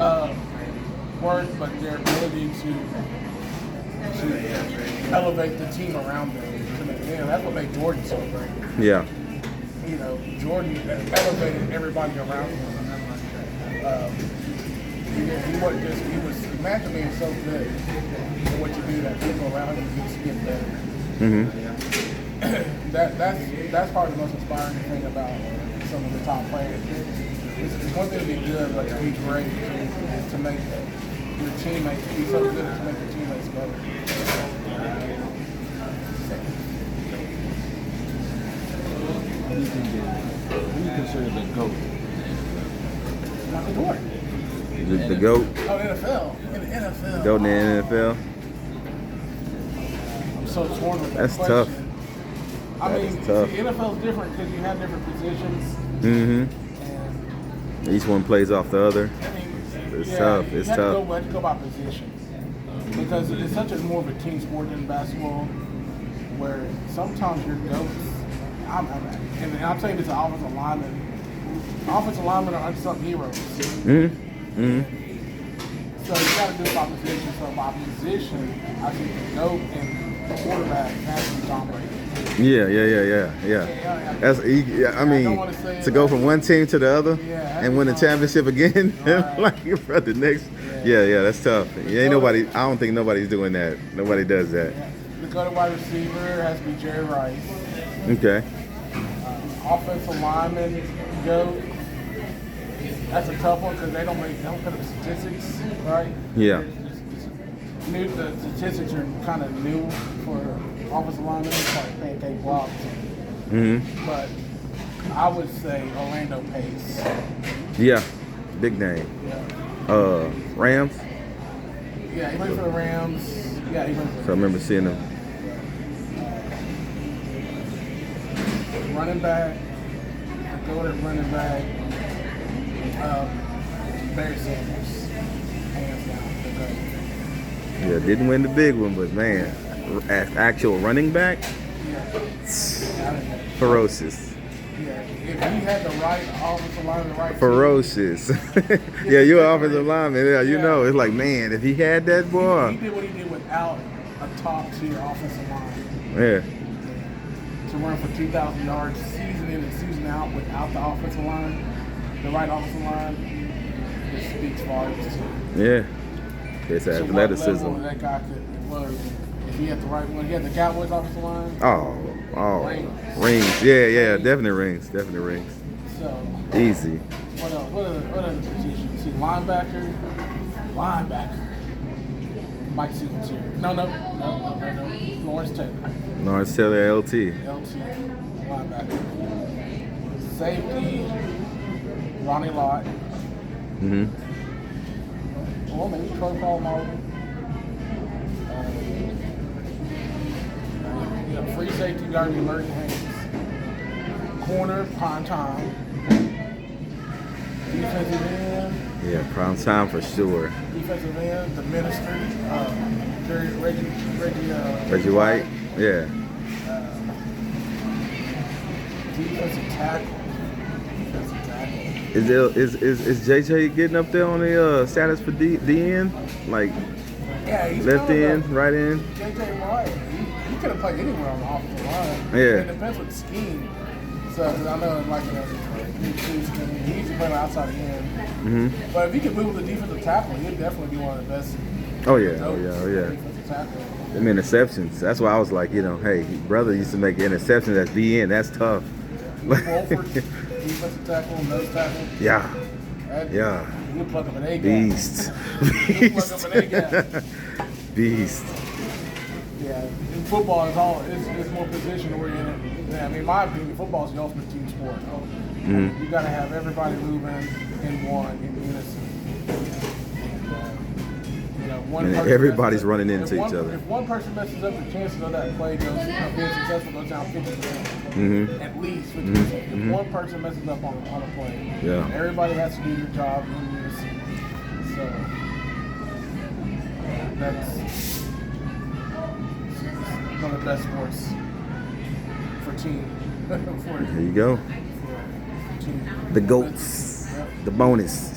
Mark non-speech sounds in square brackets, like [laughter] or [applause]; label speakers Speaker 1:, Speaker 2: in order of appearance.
Speaker 1: Uh, work, but their ability to, to elevate the team around them. To make it in. That's what made Jordan so great.
Speaker 2: Yeah.
Speaker 1: You know, Jordan elevated everybody around him. Um, he, didn't- he wasn't just, he was, imagine being so good at what you do that people around you just get better.
Speaker 2: hmm
Speaker 1: that that's that's probably the most inspiring thing about some of the top players. It's, it's one thing to be good, but to be great is to make your teammates be so good to make your teammates better.
Speaker 3: Who do you think is- who do you consider the GOAT?
Speaker 1: Michael Jordan.
Speaker 2: The, the goat,
Speaker 1: Oh, NFL. In the NFL.
Speaker 2: goat in the NFL.
Speaker 1: I'm so torn with that
Speaker 2: That's
Speaker 1: question.
Speaker 2: tough.
Speaker 1: I
Speaker 2: That
Speaker 1: mean,
Speaker 2: is tough.
Speaker 1: the NFL's different because you have different positions,
Speaker 2: Mm-hmm.
Speaker 1: and
Speaker 2: Each one plays off the other.
Speaker 1: I mean,
Speaker 2: It's
Speaker 1: yeah,
Speaker 2: tough.
Speaker 1: You
Speaker 2: It's
Speaker 1: have To
Speaker 2: tough.
Speaker 1: go, you have to go by position because it's such a more of a team sport than basketball, where sometimes your goats. I'm, I'm and I'm saying this to offensive linemen. Offensive linemen are unsung heroes, so
Speaker 2: Mm-hmm. Mm-hmm.
Speaker 1: you got to do it by position. So by position, I think the goat and the quarterback has to be Tom Brady.
Speaker 2: Yeah, yeah, yeah, yeah, yeah. That's you, yeah, I mean, to go from one team to the other and win the championship again, [laughs] like you brought the next. Yeah, yeah, that's tough. Yeah, ain't nobody. I don't think nobody's doing that. Nobody does that.
Speaker 1: Yeah. The go to wide receiver has to be Jerry Rice.
Speaker 2: Okay.
Speaker 1: offensive lineman go. That's a tough one because they don't make they don't put up statistics, right?
Speaker 2: Yeah.
Speaker 1: It's- it's- it's New, the statistics are kind of new for offensive linemen, it's like pancake blocks.
Speaker 2: Mm-hmm.
Speaker 1: But I would say Orlando Pace.
Speaker 2: Yeah. Big name.
Speaker 1: Yeah,
Speaker 2: Uh, Rams.
Speaker 1: yeah he played for the Rams. Yeah, he played
Speaker 2: So I
Speaker 1: for
Speaker 2: remember seeing them.
Speaker 1: the running back. The go at running back. Um, Barry Sanders, hands down. the GOAT.
Speaker 2: Yeah, didn't win the big one, but man, as actual running back,
Speaker 1: Yeah,
Speaker 2: ferocious.
Speaker 1: if you had the right offensive line, the right
Speaker 2: ferocious. [laughs] yeah, you're an offensive lineman. Yeah, you
Speaker 1: Yeah.
Speaker 2: know. It's like, man, if he had that
Speaker 1: team,
Speaker 2: boy,
Speaker 1: he did what he did without a top tier offensive line
Speaker 2: yeah,
Speaker 1: to run for 2,000 yards season in and season out without the offensive line, the right offensive line. It speaks volumes. to-
Speaker 2: yeah, it's
Speaker 1: to what level
Speaker 2: athleticism.
Speaker 1: That guy could was if he had the right one. He had the Cowboys offensive line,
Speaker 2: Oh, oh,
Speaker 1: Rings.
Speaker 2: rings. Yeah, yeah, definitely rings. Definitely rings.
Speaker 1: so.
Speaker 2: Easy.
Speaker 1: What else? What other, what other positions? See, linebacker, linebacker. Mike Singletary. No, no, no, no, no, no. Lawrence Taylor,
Speaker 2: Lawrence Taylor, LT.
Speaker 1: LT, linebacker. Safety, Ronnie Lott.
Speaker 2: hmm
Speaker 1: Well, maybe Pro Paul Martin. Um, you know, Uh, free safety guard, be Merton Hayes. Corner, Ponton. Defensive end.
Speaker 2: Yeah, prime time for sure.
Speaker 1: defensive end, the minister, uh, Jerry, Reggie, Reggie, uh,
Speaker 2: Reggie White. Yeah.
Speaker 1: defensive tackle, defensive tackle.
Speaker 2: Is, there, is is is JJ getting up there on the uh, status for D, DN? Like
Speaker 1: Yeah, he's
Speaker 2: left
Speaker 1: kind of
Speaker 2: end, right end?
Speaker 1: a- JJ Watt, he, he could have played anywhere on the offensive line.
Speaker 2: Yeah.
Speaker 1: It depends what scheme. So 'cause I know like uh, he shoots, I mean, he used to play on the outside end,
Speaker 2: hmm
Speaker 1: but if he could move the defensive tackle, he'd definitely be one of the best.
Speaker 2: Oh yeah. Oh yeah. Oh yeah.
Speaker 1: Defensive tackle.
Speaker 2: them interceptions. That's why I was like, you know, hey, brother used to make interceptions at DN. That's tough.
Speaker 1: Wolford,
Speaker 2: [laughs]
Speaker 1: defensive tackle, nose tackle.
Speaker 2: yeah,
Speaker 1: That-
Speaker 2: yeah,
Speaker 1: You plug up an A gap.
Speaker 2: beast,
Speaker 1: You plug up an A gap.
Speaker 2: beast, [laughs] beast.
Speaker 1: Yeah, in football is all it's, it's more position oriented. than- I mean, in my opinion, football is the ultimate team sport. Oh,
Speaker 2: Mhm.
Speaker 1: You got to have everybody moving in one in unison. And, uh, you know, one
Speaker 2: And
Speaker 1: person
Speaker 2: everybody's
Speaker 1: messes up-
Speaker 2: running into
Speaker 1: if one-
Speaker 2: each other.
Speaker 1: If one person messes up, the chances of that play goes of being successful goes down fifty percent.
Speaker 2: Mhm.
Speaker 1: At least fifty
Speaker 2: Mhm.
Speaker 1: percent. If
Speaker 2: Mhm.
Speaker 1: one person messes up on, on a play,
Speaker 2: Yeah.
Speaker 1: everybody has to do their job in unison. So that's one of the best sports for team. [laughs] for,
Speaker 2: There you go.
Speaker 1: for team.
Speaker 2: The goats,
Speaker 1: Yep.
Speaker 2: the bonus.